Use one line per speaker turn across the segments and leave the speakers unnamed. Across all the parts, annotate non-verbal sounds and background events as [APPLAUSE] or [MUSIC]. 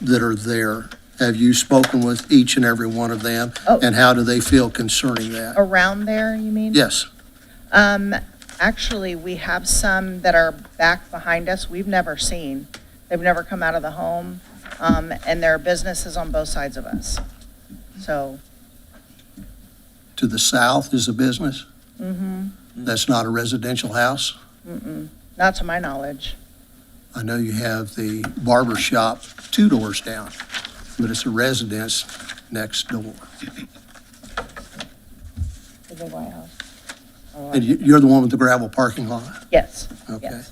that are there? Have you spoken with each and every one of them?
Oh.
And how do they feel concerning that?
Around there, you mean?
Yes,
Um, actually, we have some that are back behind us we've never seen. They've never come out of the home, um, and there are businesses on both sides of us. So,
to the south is a business?
mhm,
That's not a residential house?
mm-mm, not to my knowledge.
I know you have the barber shop two doors down, but it's a residence next door.
To the White House. Oh,
And you- you're the one with the gravel parking lot?
Yes,
Okay. Mm-hmm.
yes.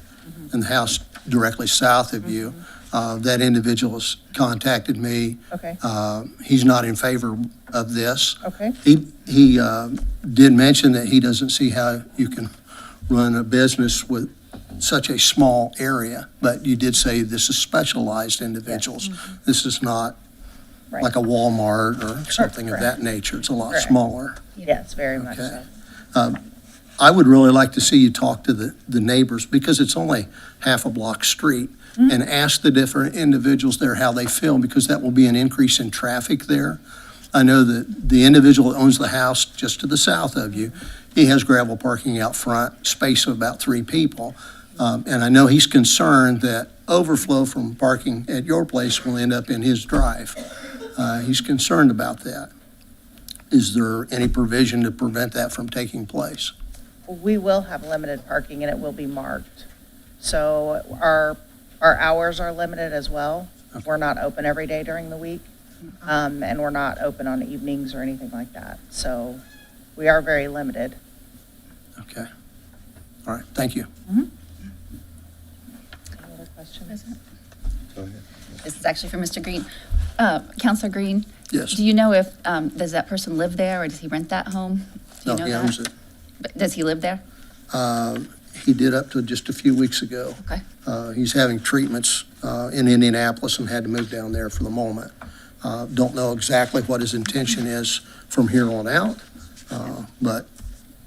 And the house directly south of you, uh, that individual has contacted me.
Mm-hmm. Okay,
Uh, He's not in favor of this.
okay,
He, he uh, did mention that he doesn't see how you can run a business with such a small area, but you did say this is specialized individuals. This is not
Mm-hmm. right.
like a Walmart or something of
correct.
that nature. It's a lot
Correct.
smaller.
Yes, very much
Okay.
so.
I would really like to see you talk to the, the neighbors, because it's only half a block street, and ask the different individuals there how they feel, because that will be an increase in traffic there. I know that the individual that owns the house just to the south of you, he has gravel parking out front, space of about three people. Um, and I know he's concerned that overflow from parking at your place will end up in his drive. Uh, he's concerned about that. Is there any provision to prevent that from taking place?
We will have limited parking and it will be marked. So our, our hours are limited as well. We're not open every day during the week. Um, and we're not open on evenings or anything like that. So we are very limited.
Okay. All right, thank you.
Any other questions?
President?
Go ahead.
This is actually for Mr. Green. Uh, Counselor Green?
Yes.
Do you know if, um, does that person live there, or does he rent that home?
No,
Do you know
he
that?
owns it.
But Does he live there?
Uh, He did up to just a few weeks ago.
Okay.
Uh, He's having treatments uh, in Indianapolis and had to move down there for the moment. Uh, Don't know exactly what his intention is from here on out, uh, but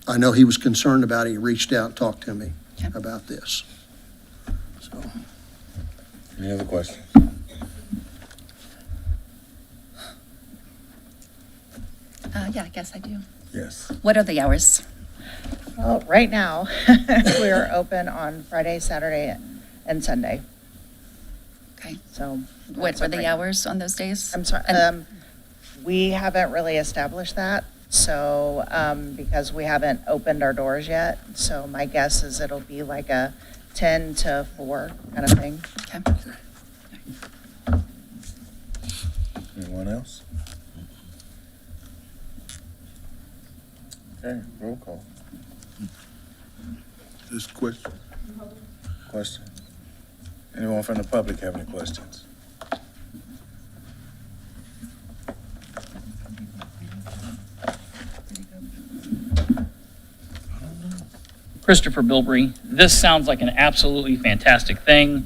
I know he was concerned about it. He reached out and talked to me
Okay.
about this. So,
Any other questions?
Uh, yeah, I guess I do.
Yes.
What are the hours?
Well, right now, [LAUGHS] we're open on Friday, Saturday, and Sunday,
Okay.
so.
What
that's
are
it right
the
now.
hours on those days?
I'm sorry,
And-
um, we haven't really established that, so, um, because we haven't opened our doors yet. So my guess is it'll be like a ten to four kind of thing.
Okay.
Anyone else? Okay, roll call.
This question,
Question? Anyone from the public have any questions?
Christopher Bilbrey, this sounds like an absolutely fantastic thing.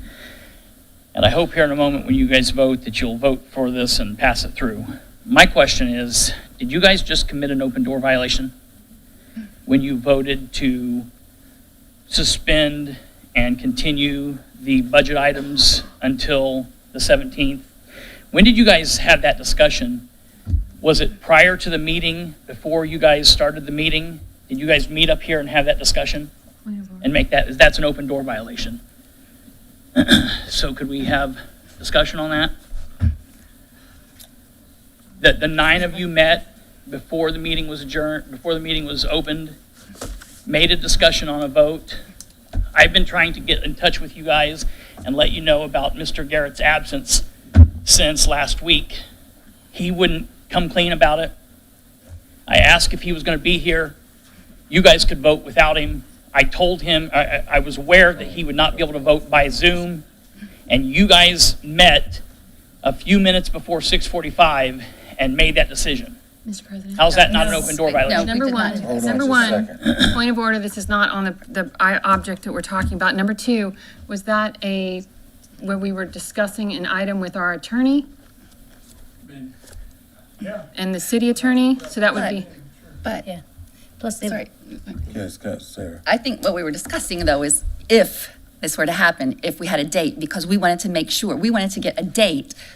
And I hope here in a moment when you guys vote that you'll vote for this and pass it through. My question is, did you guys just commit an open door violation when you voted to suspend and continue the budget items until the 17th? When did you guys have that discussion? Was it prior to the meeting, before you guys started the meeting? Did you guys meet up here and have that discussion? And make that, that's an open door violation. [CLEARS THROAT] So could we have discussion on that? That the nine of you met before the meeting was adjourned, before the meeting was opened, made a discussion on a vote. I've been trying to get in touch with you guys and let you know about Mr. Garrett's absence since last week. He wouldn't come clean about it. I asked if he was going to be here. You guys could vote without him. I told him, I- I, I was aware that he would not be able to vote by Zoom, and you guys met a few minutes before 6:45 and made that decision.
Mr. President.
How's that not an open door
No.
violation?
Number
We did
one,
not.
Hold on
number
just a
one,
second.
point of order, this is not on the, the i- object that we're talking about. Number two, was that a, where we were discussing an item with our attorney? And the city attorney, so that would be,
But,
Plus, they,
sorry,
Yes, go, Sarah.
I think what we were discussing, though, is if this were to happen, if we had a date, because we wanted to make sure, we wanted to get a date